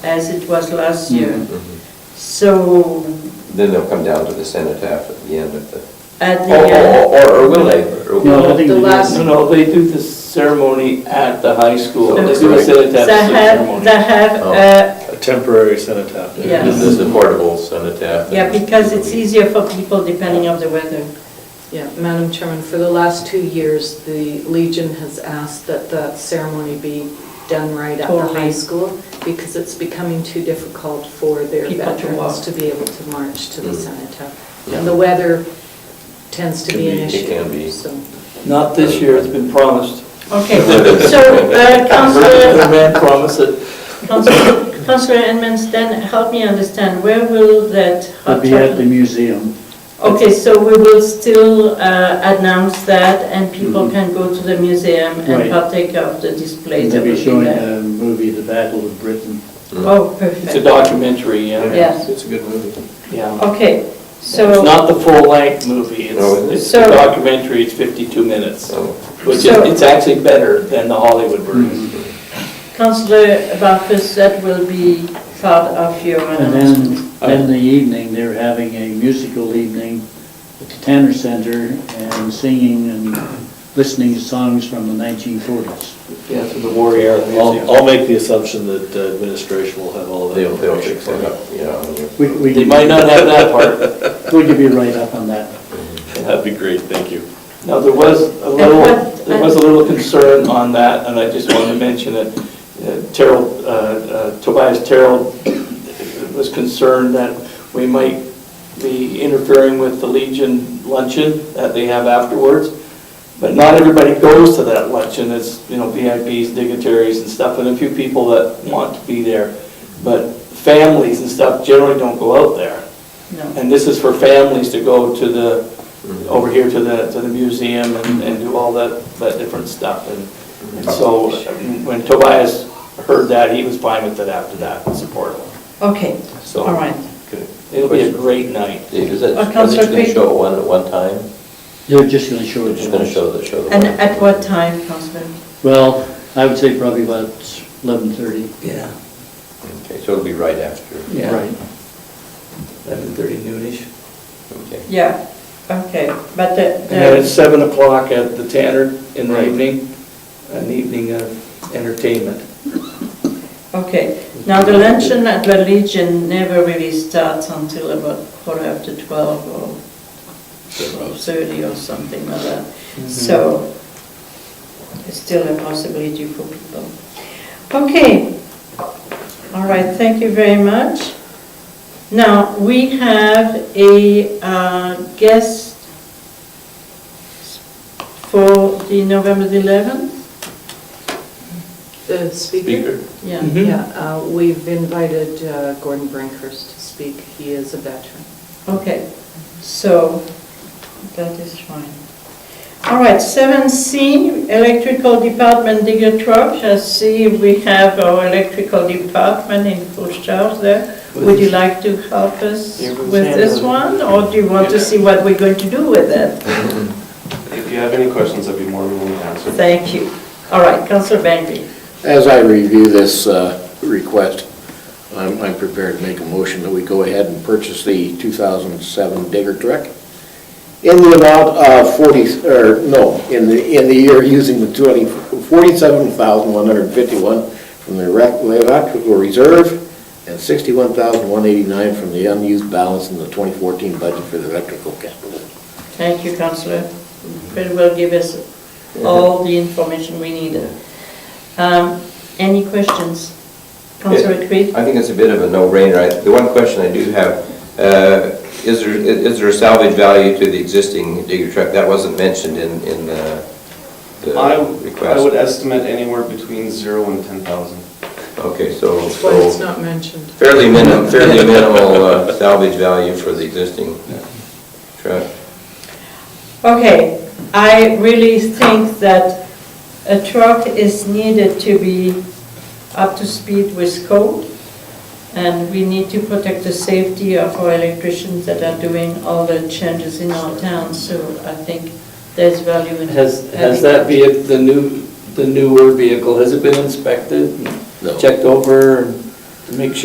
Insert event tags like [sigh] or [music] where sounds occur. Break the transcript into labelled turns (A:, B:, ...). A: as it was last year.
B: Mhm.
A: So
B: Then they'll come down to the cenotaph at the end of the,
A: at
C: Oh,
A: the, uh,
B: or, or- or will they? Or will
D: No, I
B: they?
D: think
E: The
D: they do.
E: last-
C: No, no, they do the ceremony at the high school. oh, They do a
B: That's
A: they
C: cenotaph
A: have,
C: ceremony.
A: they have,
B: Oh.
A: uh,
F: A temporary cenotaph.
A: Yeah.
B: This is a portable cenotaph.
A: yeah, because it's easier for people depending on the weather.
E: Yeah, Madam Chairman, for the last two years, the Legion has asked that the ceremony be done right at the high
A: Totally.
E: school because it's becoming too difficult for their
A: People to
E: veterans
A: walk.
E: to be able to march to the
B: Mm.
E: cenotaph.
B: Yeah.
E: And the weather tends to
B: Can
E: be an
B: be- it
E: issue.
B: can be.
E: so-
C: Not this year, it's been promised. [laughs]
A: Okay, so uh,
C: The
A: Councillor,
C: man promised it.
A: Councillor- Councillor Edmonds, then help me understand, where will that
D: It'll
A: hot
D: be at the
A: chocolate?
D: museum.
A: Okay, so we will still uh, announce that and people can go to the museum and
D: Mm-hmm. Right.
A: partake of the display that
D: They'll
A: will
D: be
A: be
D: showing
A: there.
D: the movie, The Battle of Britain.
A: Oh,
C: It's a
A: perfect.
C: documentary, yeah.
A: Yes.
F: It's a good movie.
C: Yeah.
A: Okay,
C: It's
A: so,
C: not the full-length movie.
B: No,
C: It's
B: it
C: it's
A: So-
C: a documentary, it's 52 minutes.
B: So,
C: Which is,
A: So-
C: it's actually better than the Hollywood version.
B: Mm-hmm.
A: Councillor Barfus, that will be part of your
D: And
A: announcement.
D: then, then the evening, they're having a musical evening at the Tanner Center and singing and listening to songs from the 1940s.
C: Yeah, so the Warrior Museum.
F: I'll, I'll make the assumption that uh, administration will have all of that.
B: they'll, they'll
F: information
B: fix
F: for
B: it
F: you.
B: up, you know.
D: We, we,
C: They might not have that part.
D: we could be right up on that.
F: That'd be great, thank you.
C: Now, there was a little,
A: what-
C: there was a little concern on that, and I just wanted to mention it. Uh, Terrell, uh, uh, Tobias Terrell was concerned that we might be interfering with the Legion luncheon that they have afterwards. But not everybody goes to that luncheon, it's, you know, VIPs, dignitaries and stuff, and a few people that want to be there. But families and stuff generally don't go out there.
A: No.
C: And this is for families to go to
B: Mm-hmm.
C: the, over here to the, to the museum and, and do all that, that different stuff. And
B: Mm-hmm.
C: and so when Tobias heard that, he was fine with it after that, and supportive.
A: Okay,
B: So-
A: all right.
B: Good.
C: It'll be a great night.
B: Yeah, Is it,
A: Uh,
B: are they
A: Councillor
B: just going
A: Creed?
B: to show it one, at one time?
D: They're just gonna show
B: They're
D: it.
B: just going
D: to
B: to
D: us.
B: show the, show the
A: And
B: one?
A: at what time, Councillor?
D: Well, I would say probably about 11:30.
C: Yeah.
B: Okay, so it'll be right after.
C: Yeah.
D: Right.
C: Eleven thirty noonish.
B: Okay.
A: Yeah, okay, but the-
C: And then at
A: the,
C: seven o'clock at the Tanner in the
D: Right.
C: evening, an evening of entertainment.
A: okay. Now, the luncheon at the Legion never really starts until about quarter after 12 or 12:30 or something like that. So it's still a possibility for people. Okay, all right, thank you very much. Now, we have a uh, guest for the November the 11th?
E: The
B: Speaker.
E: speaker?
A: Yeah.
C: Mhm.
E: Yeah, uh, we've invited uh, Gordon Brinkhurst to speak. He is a veteran.
A: Okay, so that is fine. All right, seven C, electrical department digger truck. I see we have our electrical department in full charge there. Would you like to help us
C: Here goes
A: with this
C: Sandra.
A: one, or do you want to see what we're going to do with it?
G: If you have any questions, I'd be more than willing to answer.
A: Thank you. All right, Councilor Bentley.
H: As I review this uh, request, I'm I'm prepared to make a motion that we go ahead and purchase the 2007 Digger Trek in the amount of 40, or no, in the, in the year using the 20 47,151 from the rec- electrical reserve and 61,189 from the unused balance in the 2014 budget for the electrical capital.
A: Thank you, Councillor. Very well give us all the information we needed. Um, Any questions? Councillor Creed?
B: I think it's a bit of a no-brainer. I- The one question I do have, uh, is there, is there a salvage value to the existing digger truck? That wasn't mentioned in, in the the
G: I, I would
B: request.
G: estimate anywhere between zero and 10,000.
B: Okay, so,
E: That's why
B: Oh,
E: it's
B: so
E: not mentioned.
B: fairly minimal, fairly minimal uh, salvage value for the existing truck.
A: Okay, I really think that a truck is needed to be up to speed with code, and we need to protect the safety of our electricians that are doing all the changes in our town, so I think there's value in.
C: Has,
A: having-
C: has that vehicle, the new, the newer vehicle, has it been inspected?
H: No.
C: Checked over? and- make sure